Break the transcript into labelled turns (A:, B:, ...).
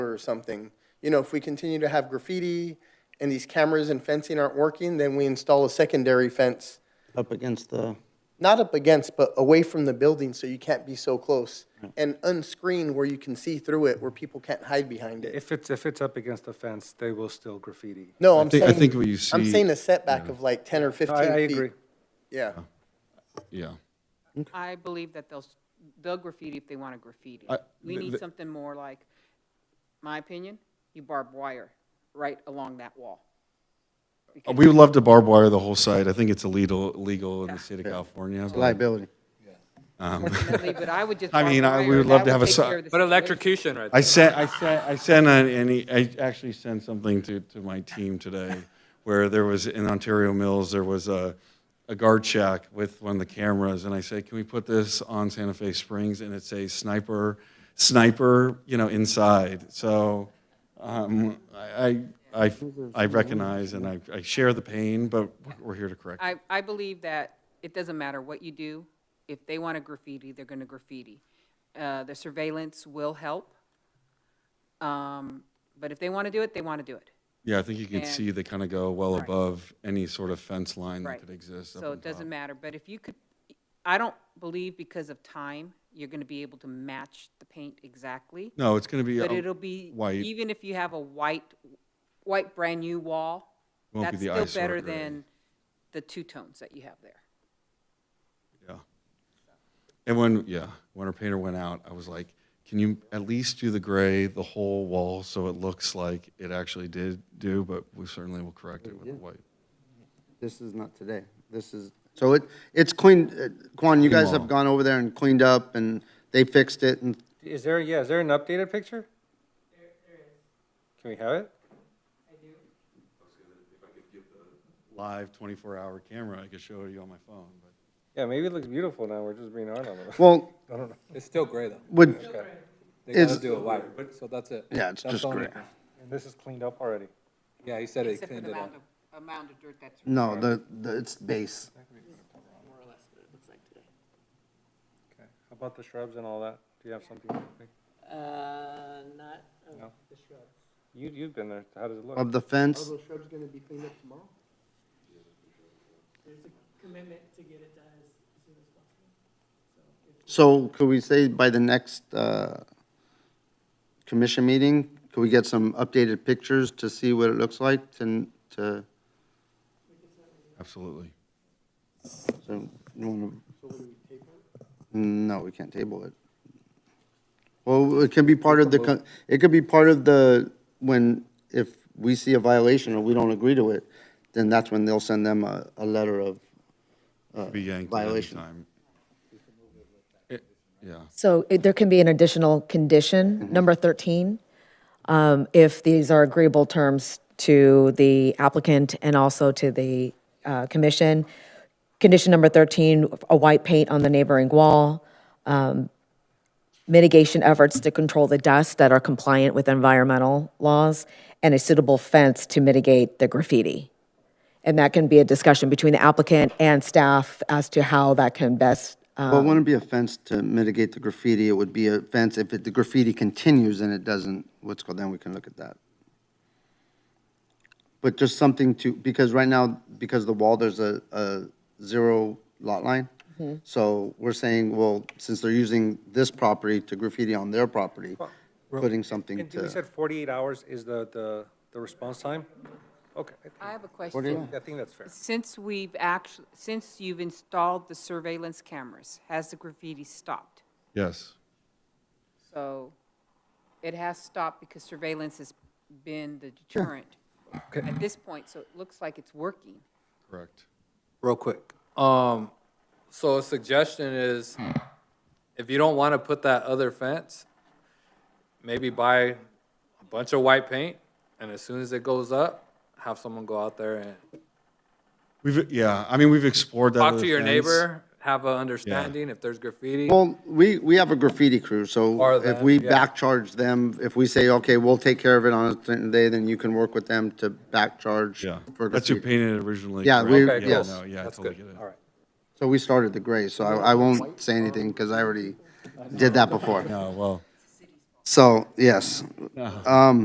A: or something. You know, if we continue to have graffiti and these cameras and fencing aren't working, then we install a secondary fence,
B: up against the,
A: not up against, but away from the building so you can't be so close. And unscreened where you can see through it, where people can't hide behind it.
C: If it's, if it's up against the fence, they will still graffiti.
A: No, I'm
D: think-
A: saying.
D: I think what you
A: I'm
D: see-
A: saying a setback of like ten or
C: No,
A: fifteen
C: I,
A: feet.
C: I agree.
A: Yeah.
D: Yeah.
E: I believe that they'll, s- they'll graffiti if they want to graffiti.
D: I-
E: We
D: th-
E: need
D: th-
E: something more like, my opinion, you barb wire right along that wall.
D: Uh, We would love to barbed wire the whole site. I think it's illegal, illegal in the state of California. but-
B: liability.
E: Ultimately, But I would just.
D: I
E: barb
D: mean, I- we
E: wire,
D: would love
E: that
D: to have a
E: take
D: si-
E: care of the
F: But
E: situation.
F: electrocution right there.
D: I sent, I sent, I sent an, any, I actually sent something to, to my team today where there was, in Ontario Mills, there was a, a guard shack with one of the cameras. And I said, can we put this on Santa Fe Springs? And it says sniper, sniper, you know, inside. So, um, I, I, I- I recognize and I, I share the pain, but we're here to correct. it.
E: I, I believe that it doesn't matter what you do. If they want to graffiti, they're going to graffiti. Uh, The surveillance will help. Um, But if they want to do it, they want to do it.
D: Yeah, I think you can
E: And-
D: see they kind of go well above any sort of fence line that
E: Right.
D: could exist. up
E: So
D: on
E: it doesn't
D: top.
E: matter, but if you could, I don't believe because of time, you're gonna be able to match the paint exactly.
D: No, it's going to be.
E: But
D: a-
E: it'll be,
D: white.
E: even if you have a white, white brand-new wall,
D: Won't be
E: that's
D: the
E: still
D: eyesore
E: better
D: gray.
E: than the two tones that you have there.
D: Yeah. And when, yeah, when our painter went out, I was like, can you at least do the gray, the whole wall, so it looks like it actually did do, but we certainly will correct it with the white.
B: This is not today. This is, so it, it's cleaned, uh, Quan, you guys
D: Tomorrow.
B: have gone over there and cleaned up and they fixed it and
C: Is there, yeah, is there an updated picture? Can we have it?
D: Live 24-hour camera, I could show you on my phone, but.
C: Yeah, maybe it looks beautiful now, we're just being arnold.
B: Well,
G: It's still gray though.
B: would,
G: They
B: It's-
G: gotta do it white, so that's it.
B: Yeah, it's
G: That's
B: just
G: the only
B: gray.
G: thing.
C: And this is cleaned up already.
G: Yeah, he said he
E: Except for
G: cleaned
E: the
G: it up.
E: amount of, amount of dirt
D: Mm.
E: that's.
B: no, the, the, it's base.
C: Okay. How about the shrubs and all that? Do you have something?
H: Uh, not
C: No.
H: of the shrubs.
C: You, you've been there, how does it look?
B: Of the fence,
A: shrubs gonna be cleaned up tomorrow?
H: There's a commitment to get it done as as soon as possible.
B: so could we say by the next, uh, commission meeting, could we get some updated pictures to see what it looks like and to,
D: Absolutely.
B: so, you wanna? No, we can't table it. Well, it can be part of the, con- it could be part of the, when, if we see a violation or we don't agree to it, then that's when they'll send them a, a letter of uh,
D: Be yanked at any
B: violation.
D: time. It- Yeah.
I: So it- there can be an additional condition, number 13, um, if these are agreeable terms to the applicant and also to the uh, commission. Condition number 13, a white paint on the neighboring wall, um, mitigation efforts to control the dust that are compliant with environmental laws, and a suitable fence to mitigate the graffiti. And that can be a discussion between the applicant and staff as to how that can best uh,
B: Well, it wouldn't be a fence to mitigate the graffiti, it would be a fence if it- the graffiti continues and it doesn't, what's called, then we can look at that. But just something to, because right now, because of the wall, there's a, a zero lot line. So we're saying, well, since they're using this property to graffiti on their property, putting something
C: And we
B: to,
C: said forty-eight hours is the, the, the response time? Okay, I think-
E: I have a question.
C: I think that's fair.
E: Since we've actually, since you've installed the surveillance cameras, has the graffiti stopped?
D: Yes.
E: So it has stopped because surveillance has been the deterrent at this point, so it looks like it's working.
D: Correct.
G: Real quick.
F: Um, so a suggestion is, if you don't wanna put that other fence, maybe buy a bunch of white paint, and as soon as it goes up, have someone go out there and
D: We've, yeah, I mean, we've explored that.
F: talk
D: other
F: to your
D: fence.
F: neighbor, have a understanding if there's graffiti.
B: well, we, we have a graffiti crew,
F: Or
B: so if
F: that,
B: we
F: yeah.
B: back charge them, if we say, okay, we'll take care of it on a certain day, then you can work with them to back charge
D: Yeah.
B: for
D: That's who
B: graffiti.
D: painted it originally.
B: Yeah,
D: correct?
B: we-
F: Okay,
B: yes.
D: no,
F: cool.
D: Yeah, I
F: That's
D: totally
F: good.
D: get it.
C: All right.
B: So we started the gray, so I, I won't say anything because I already did that before.
D: No, well,
B: So, yes.